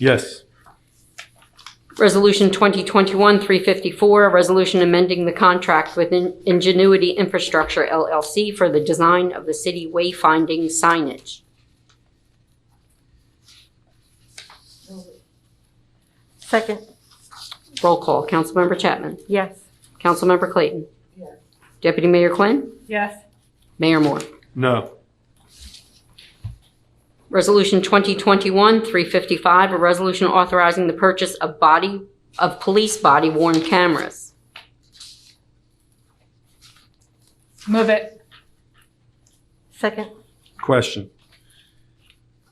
Yes. Resolution 2021-354, a resolution amending the contract with In- Ingenuity Infrastructure LLC for the design of the city wayfinding signage. Second, Roll call, Councilmember Chapman. yes. Councilmember Clayton. Yes. Deputy Mayor Quinn. Yes. Mayor Moore. No. Resolution 2021-355, a resolution authorizing the purchase of body, of police body worn cameras. Move it. Second, Question.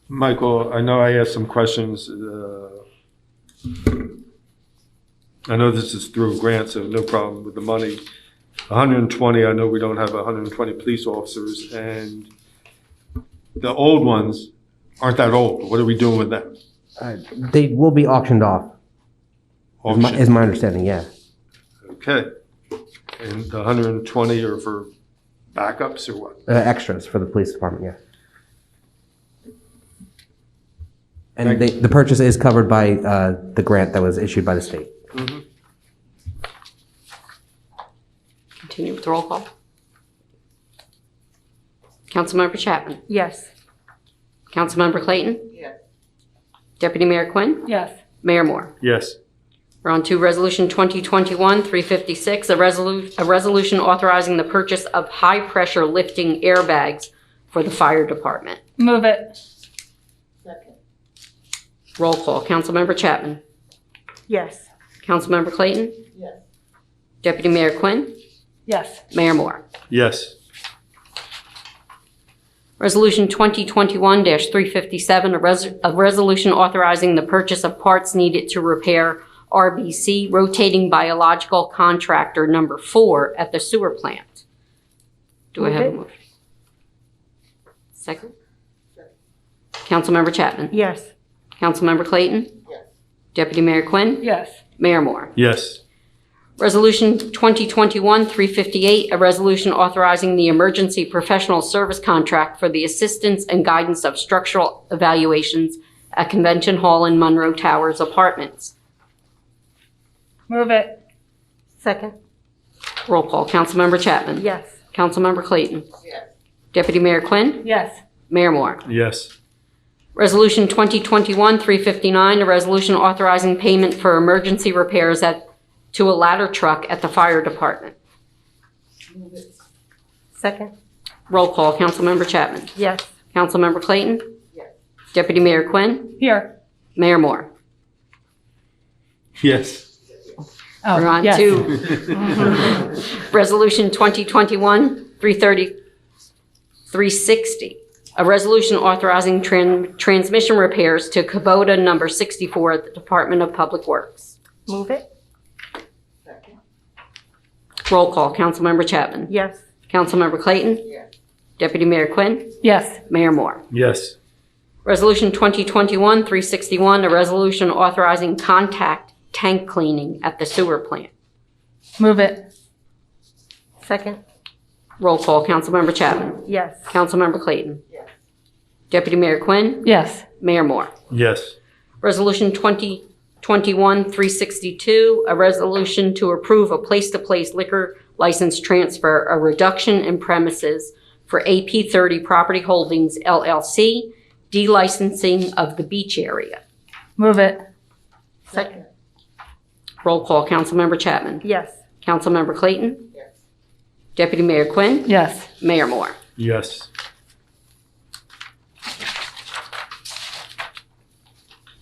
Michael, I know I asked some questions. uh, I know this is through grants, so no problem with the money. 120, I know we don't have 120 police officers, and the old ones aren't that old. What are we doing with them? Uh, They will be auctioned off, is my- is Auction, my understanding, yeah. okay. And the 120 are for backups or what? Uh, Extras for the police department, yeah. And they- the purchase is covered by uh, the grant that was issued by the state. Continue with roll call. Councilmember Chapman. yes. Councilmember Clayton. Yes. Deputy Mayor Quinn. Yes. Mayor Moore. Yes. We're on to Resolution 2021-356, a resolu- a resolution authorizing the purchase of high-pressure lifting airbags for the fire department. Move it. Roll call. Councilmember Chapman. Yes. Councilmember Clayton. Yes. Deputy Mayor Quinn. Yes. Mayor Moore. Yes. Resolution 2021-357, a res- a resolution authorizing the purchase of parts needed to repair RBC rotating biological contractor number four at the sewer plant. Do I have a Move motion? Second? Councilmember Chapman? Yes. Councilmember Clayton? Deputy Mayor Quinn? Yes. Mayor Moore? Yes. Resolution 2021-358, a resolution authorizing the emergency professional service contract for the assistance and guidance of structural evaluations at Convention Hall and Monroe Towers Apartments. Move it. Second, Roll call, Councilmember Chapman. yes. Councilmember Clayton. Deputy Mayor Quinn. Yes. Mayor Moore. Yes. Resolution 2021-359, a resolution authorizing payment for emergency repairs at, to a ladder truck at the fire department. Second, Roll call, Councilmember Chapman. yes. Councilmember Clayton. Yes. Deputy Mayor Quinn. Here. Mayor Moore. Yes. Oh, We're on yes. to Resolution 2021-330, 360, a resolution authorizing tran- transmission repairs to Kubota number 64 at the Department of Public Works. Move it, Roll call, Councilmember Chapman. yes. Councilmember Clayton. Deputy Mayor Quinn. Yes. Mayor Moore. Yes. Resolution 2021-361, a resolution authorizing contact tank cleaning at the sewer plant. Move it. Second, Roll call, Councilmember Chapman. yes. Councilmember Clayton. Deputy Mayor Quinn. Yes. Mayor Moore. Yes. Resolution 2021-362, a resolution to approve a place-to-place liquor license transfer, a reduction in premises for AP 30 Property Holdings LLC, delicensing of the beach area. Move it. Second, Roll call, Councilmember Chapman. yes. Councilmember Clayton. Deputy Mayor Quinn. Yes. Mayor Moore. Yes.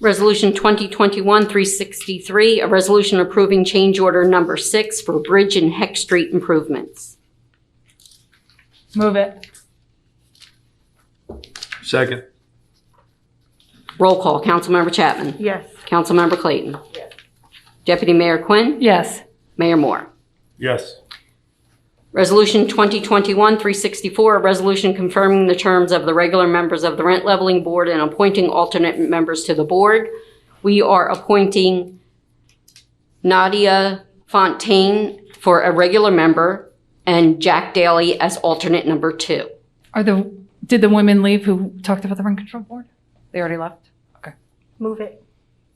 Resolution 2021-363, a resolution approving change order number six for Bridge and Heck Street improvements. Move it. Second. Roll call, Councilmember Chapman. Yes. Councilmember Clayton. Deputy Mayor Quinn. Yes. Mayor Moore. Yes. Resolution 2021-364, a resolution confirming the terms of the regular members of the Rent Leveling Board and appointing alternate members to the board. We are appointing Nadia Fontaine for a regular member and Jack Daly as alternate number two. Are the did the women leave who talked about the rent control board? They already left. Move it,